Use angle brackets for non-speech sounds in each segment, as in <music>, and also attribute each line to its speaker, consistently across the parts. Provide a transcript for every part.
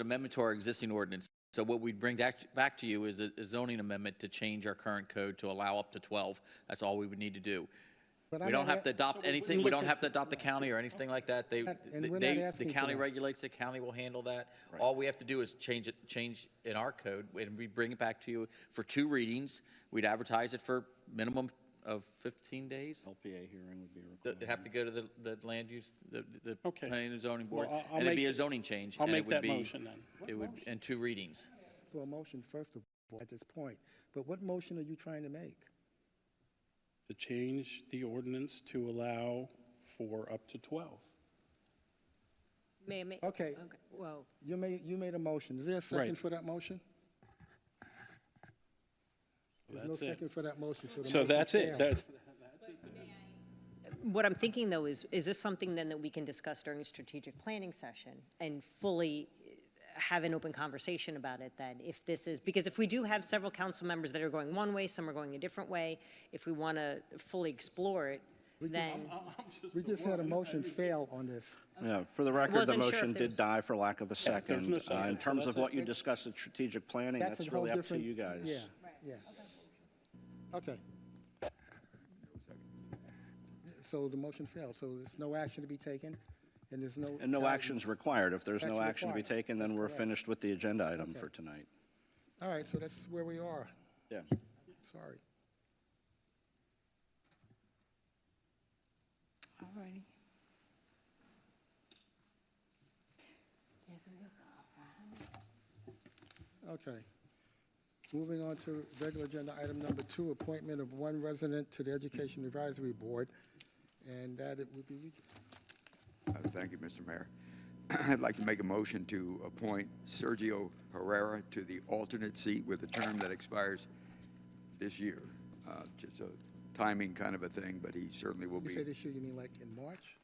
Speaker 1: amendment to our existing ordinance. So what we'd bring back, back to you is a a zoning amendment to change our current code to allow up to 12. That's all we would need to do.
Speaker 2: But
Speaker 1: We
Speaker 2: I'm
Speaker 1: don't
Speaker 2: not
Speaker 1: have to
Speaker 2: a-
Speaker 1: adopt anything, we don't have to adopt the county or anything like that. They,
Speaker 2: And we're not
Speaker 1: they, the
Speaker 2: asking for
Speaker 1: county
Speaker 2: that.
Speaker 1: regulates, the county will handle that. All we have to do is change it, change in our code, and we bring it back to you for two readings. We'd advertise it for minimum of 15 days.
Speaker 3: LPA hearing would be required.
Speaker 1: They'd have to go to the, the land use, the, the
Speaker 4: Okay.
Speaker 1: planning and zoning board,
Speaker 4: Well, I'll- I'll
Speaker 1: and it'd be
Speaker 4: make-
Speaker 1: a zoning change.
Speaker 4: I'll
Speaker 1: and it
Speaker 4: make
Speaker 1: would
Speaker 4: that
Speaker 1: be-
Speaker 4: motion then.
Speaker 1: It would, and two readings.
Speaker 2: For a motion, first of all, at this point, but what motion are you trying to make?
Speaker 4: To change the ordinance to allow for up to 12.
Speaker 5: May I make?
Speaker 2: Okay.
Speaker 5: Well,
Speaker 2: You made, you made a motion. Is there a second
Speaker 4: Right.
Speaker 2: for that motion? There's no
Speaker 4: That's it.
Speaker 2: second for that motion, so the
Speaker 4: So
Speaker 2: motion
Speaker 4: that's
Speaker 2: fails.
Speaker 4: it. That's,
Speaker 5: what I'm thinking though is, is this something then that we can discuss during a strategic planning session and fully eh, have an open conversation about it then? If this is, because if we do have several council members that are going one way, some are going a different way, if we want to fully explore it, then,
Speaker 2: We just had a motion fail on this.
Speaker 3: Yeah, for the record, the
Speaker 5: wasn't sure if
Speaker 3: motion
Speaker 5: there was-
Speaker 3: did die for lack of a
Speaker 4: no
Speaker 3: second. Uh,
Speaker 4: second,
Speaker 3: In
Speaker 4: so
Speaker 3: terms of
Speaker 4: that's
Speaker 3: what
Speaker 4: it.
Speaker 3: you discussed at strategic planning,
Speaker 2: That's a
Speaker 3: that's
Speaker 2: whole
Speaker 3: really up to
Speaker 2: different-
Speaker 3: you guys.
Speaker 2: Yeah, yeah. Okay. So the motion failed, so there's no action to be taken, and there's no.
Speaker 3: And no action's
Speaker 2: guidance.
Speaker 3: required. If there's no
Speaker 2: Action
Speaker 3: action to be
Speaker 2: required.
Speaker 3: taken, then
Speaker 2: That's
Speaker 3: we're
Speaker 2: correct.
Speaker 3: finished with the agenda item for tonight.
Speaker 2: All right, so that's where we are.
Speaker 3: Yeah.
Speaker 2: Sorry.
Speaker 6: All righty.
Speaker 2: Okay. Moving on to regular agenda item number two, appointment of one resident to the Education Advisory Board, and that it would be you.
Speaker 7: Uh, Thank you, Mr. Mayor. <clears throat> I'd like to make a motion to appoint Sergio Herrera to the alternate seat with a term that expires this year. Uh, Just a timing kind of a thing, but he certainly will
Speaker 2: You
Speaker 7: be.
Speaker 2: say this year, you mean like in March?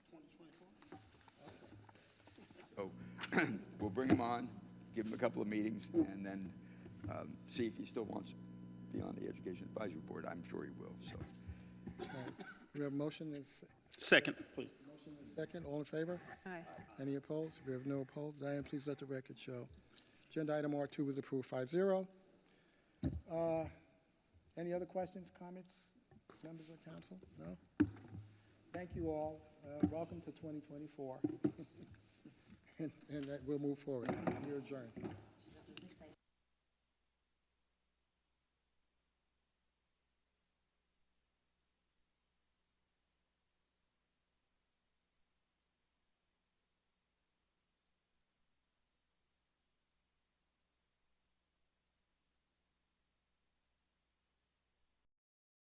Speaker 7: So <clears throat> we'll bring him on, give him a couple of meetings, and then um, see if he still wants to be on the Education Advisory Board. I'm sure he will, so.
Speaker 2: We have a motion and s-
Speaker 4: second, please.
Speaker 2: motion and second, all in favor?
Speaker 6: Aye.
Speaker 2: Any opposed? We have no opposed. Diane, please let the record show. Agenda item R2 was approved 5-0. Uh, Any other questions, comments, members of council? No? Thank you all. Uh, Welcome <laughs> to 2024. And and that we'll move forward. You're adjourned.